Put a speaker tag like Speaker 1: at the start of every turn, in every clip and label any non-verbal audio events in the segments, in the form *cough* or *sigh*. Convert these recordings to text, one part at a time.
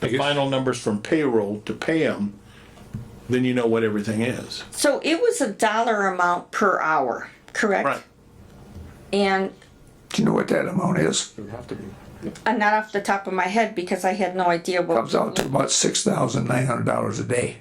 Speaker 1: the final numbers from payroll to pay them, then you know what everything is.
Speaker 2: So it was a dollar amount per hour, correct? And
Speaker 3: Do you know what that amount is?
Speaker 2: uh, not off the top of my head because I had no idea
Speaker 3: Comes
Speaker 2: what,
Speaker 3: out to about six thousand nine hundred dollars a day.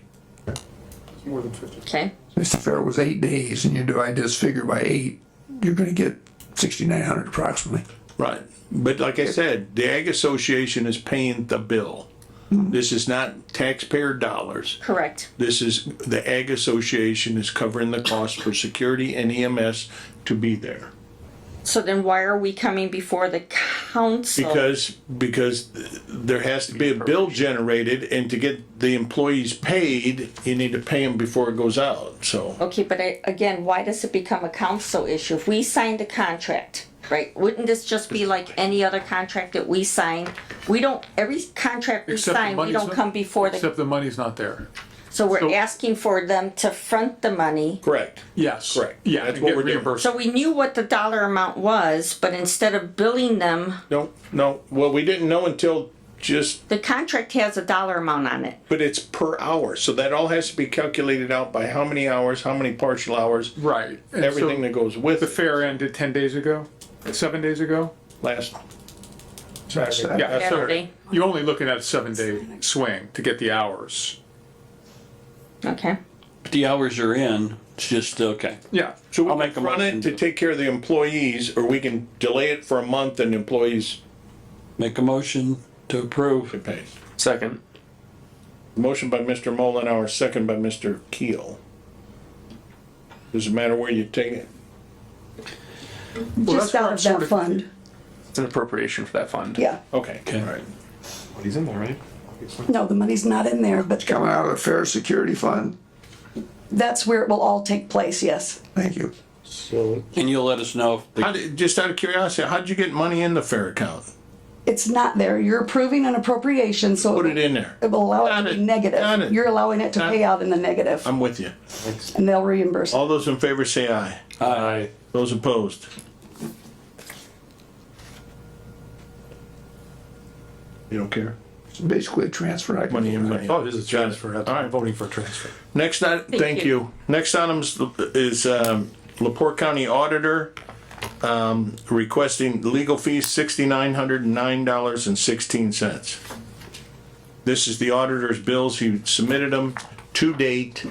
Speaker 2: okay,
Speaker 3: If the fair was eight days and you divide this figure by eight, you're gonna get sixty-nine hundred approximately.
Speaker 1: Right, but like I said, the Ag Association is paying the bill. This is not taxpayer dollars.
Speaker 2: correct.
Speaker 1: This is, the Ag Association is covering the cost for security and EMS to be there.
Speaker 2: So then why are we coming before the council?
Speaker 1: Because, because there has to be a bill generated and to get the employees paid, you need to pay them before it goes out, so.
Speaker 2: Okay, but I, again, why does it become a council issue? If we signed a contract, right, wouldn't this just be like any other contract that we sign? We don't, every contract we
Speaker 4: Except the
Speaker 2: sign, we
Speaker 4: money's
Speaker 2: don't
Speaker 4: not-
Speaker 2: come before the,
Speaker 4: Except the money's not there.
Speaker 2: so we're
Speaker 4: so-
Speaker 2: asking for them to front the money.
Speaker 1: Correct.
Speaker 4: Yes.
Speaker 1: Correct.
Speaker 4: Yeah.
Speaker 1: That's
Speaker 4: and
Speaker 1: what
Speaker 4: get
Speaker 1: we're doing.
Speaker 4: reimbursed.
Speaker 2: So we knew what the dollar amount was, but instead of billing them,
Speaker 1: No, no, well, we didn't know until just,
Speaker 2: the contract has a dollar amount on it.
Speaker 1: but it's per hour, so that all has to be calculated out by how many hours, how many partial hours.
Speaker 4: Right. And
Speaker 1: Everything
Speaker 4: so
Speaker 1: that goes with
Speaker 4: The
Speaker 1: it.
Speaker 4: fair ended ten days ago, seven days ago?
Speaker 1: Last,
Speaker 4: Yeah. so
Speaker 2: Saturday.
Speaker 4: You're only looking at a seven day swing to get the hours.
Speaker 2: Okay.
Speaker 5: the hours are in, it's just, okay.
Speaker 4: Yeah.
Speaker 1: so we
Speaker 5: I'll
Speaker 1: can
Speaker 5: make a
Speaker 1: run
Speaker 5: motion
Speaker 1: it to
Speaker 5: to-
Speaker 1: take care of the employees, or we can delay it for a month and employees
Speaker 5: Make a motion to approve.
Speaker 1: get paid.
Speaker 6: Second.
Speaker 1: Motion by Mr. Mullenhour, second by Mr. Keel. Doesn't matter where you take it.
Speaker 4: Well, that's
Speaker 7: Just
Speaker 4: where
Speaker 7: out
Speaker 4: I'm
Speaker 7: of
Speaker 4: sort
Speaker 7: that fund,
Speaker 6: It's an appropriation for that fund.
Speaker 7: yeah.
Speaker 1: Okay, all right.
Speaker 8: He's in there, right?
Speaker 7: No, the money's not in there, but
Speaker 3: Coming out of the fair security fund,
Speaker 7: that's where it will all take place, yes.
Speaker 3: thank you.
Speaker 5: And you'll let us know if
Speaker 1: How
Speaker 5: the
Speaker 1: did, just out of curiosity, how'd you get money in the fair account?
Speaker 7: It's not there. You're approving an appropriation, so.
Speaker 1: Put it in there.
Speaker 7: It will allow it
Speaker 1: Got
Speaker 7: to be
Speaker 1: it. Got it.
Speaker 7: negative. You're allowing it to
Speaker 1: Got
Speaker 7: pay
Speaker 1: it.
Speaker 7: out in the negative,
Speaker 1: I'm with you.
Speaker 7: and they'll reimburse.
Speaker 1: All those in favor say aye.
Speaker 6: Aye.
Speaker 1: Those opposed? You don't care?
Speaker 3: It's basically a transfer. I can-
Speaker 1: Money in, money out.
Speaker 8: Oh, it is a transfer.
Speaker 1: All right.
Speaker 8: I'm voting for a transfer.
Speaker 1: Next, i- thank
Speaker 2: you.
Speaker 1: you. Next item is- is um, Lepore County Auditor um, requesting legal fees sixty-nine hundred and nine dollars and sixteen cents. This is the auditor's bills. He submitted them to date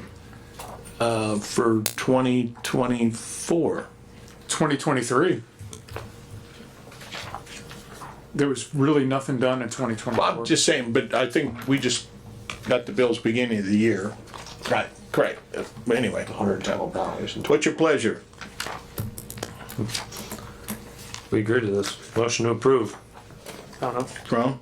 Speaker 1: uh, for twenty twenty-four.
Speaker 4: Twenty twenty three. There was really nothing done in twenty twenty
Speaker 1: I'm
Speaker 4: four.
Speaker 1: just saying, but I think we just got the bills beginning of the year. Right. Correct. But Anyway.
Speaker 8: dollars.
Speaker 1: What's your pleasure?
Speaker 8: We agree to this. Motion to approve. *laughs*
Speaker 6: I don't know.
Speaker 1: Crum?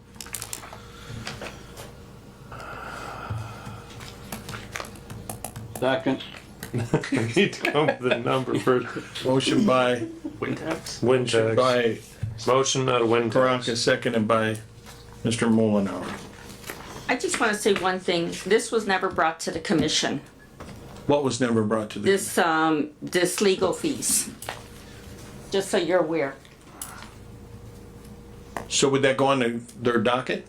Speaker 5: second,
Speaker 8: We need to come up with a number first.
Speaker 1: Motion by,
Speaker 6: Wind tax?
Speaker 8: Wind tax.
Speaker 1: by
Speaker 8: Motion out of wind tax.
Speaker 1: Karanka, seconded by Mr. Mullenhour.
Speaker 2: I just want to say one thing. This was never brought to the commission.
Speaker 1: What was never brought to the,
Speaker 2: This, um, this legal fees. Just so you're aware.
Speaker 1: so would that go on their- their docket?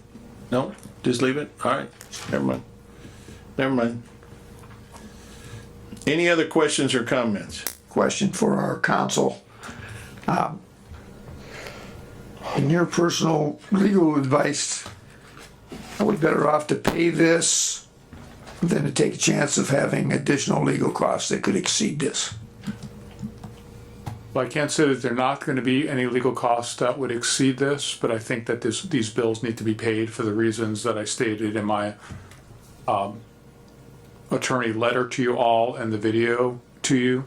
Speaker 1: No? Just leave it? All right, never mind. Never mind. Any other questions or comments?
Speaker 3: question for our counsel. Um, In your personal legal advice, are we better off to pay this than to take a chance of having additional legal costs that could exceed this?
Speaker 4: Well, I can't say that there are not going to be any legal costs that would exceed this, but I think that this, these bills need to be paid for the reasons that I stated in my um, attorney letter to you all and the video to you.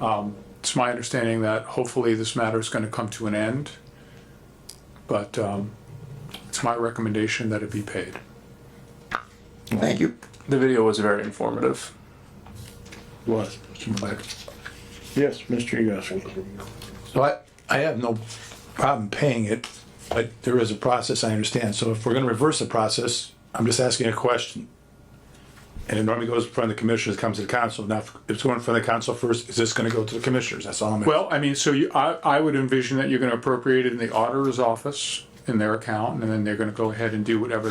Speaker 4: Um, It's my understanding that hopefully this matter is going to come to an end, but um, it's my recommendation that it be paid.
Speaker 3: Thank you.
Speaker 6: The video was very informative.
Speaker 1: Was. Yes, Mr. Yagowski.
Speaker 9: So I, I have no problem paying it, but there is a process, I understand. So if we're gonna reverse the process, I'm just asking a question. And it normally goes in front of the commissioners, comes to the council. Now, if it's going in front of the council first, is this gonna go to the commissioners? That's all I'm.
Speaker 4: Well, I mean, so you, I, I would envision that you're going to appropriate it in the auditor's office in their account, and then they're going to go ahead and do whatever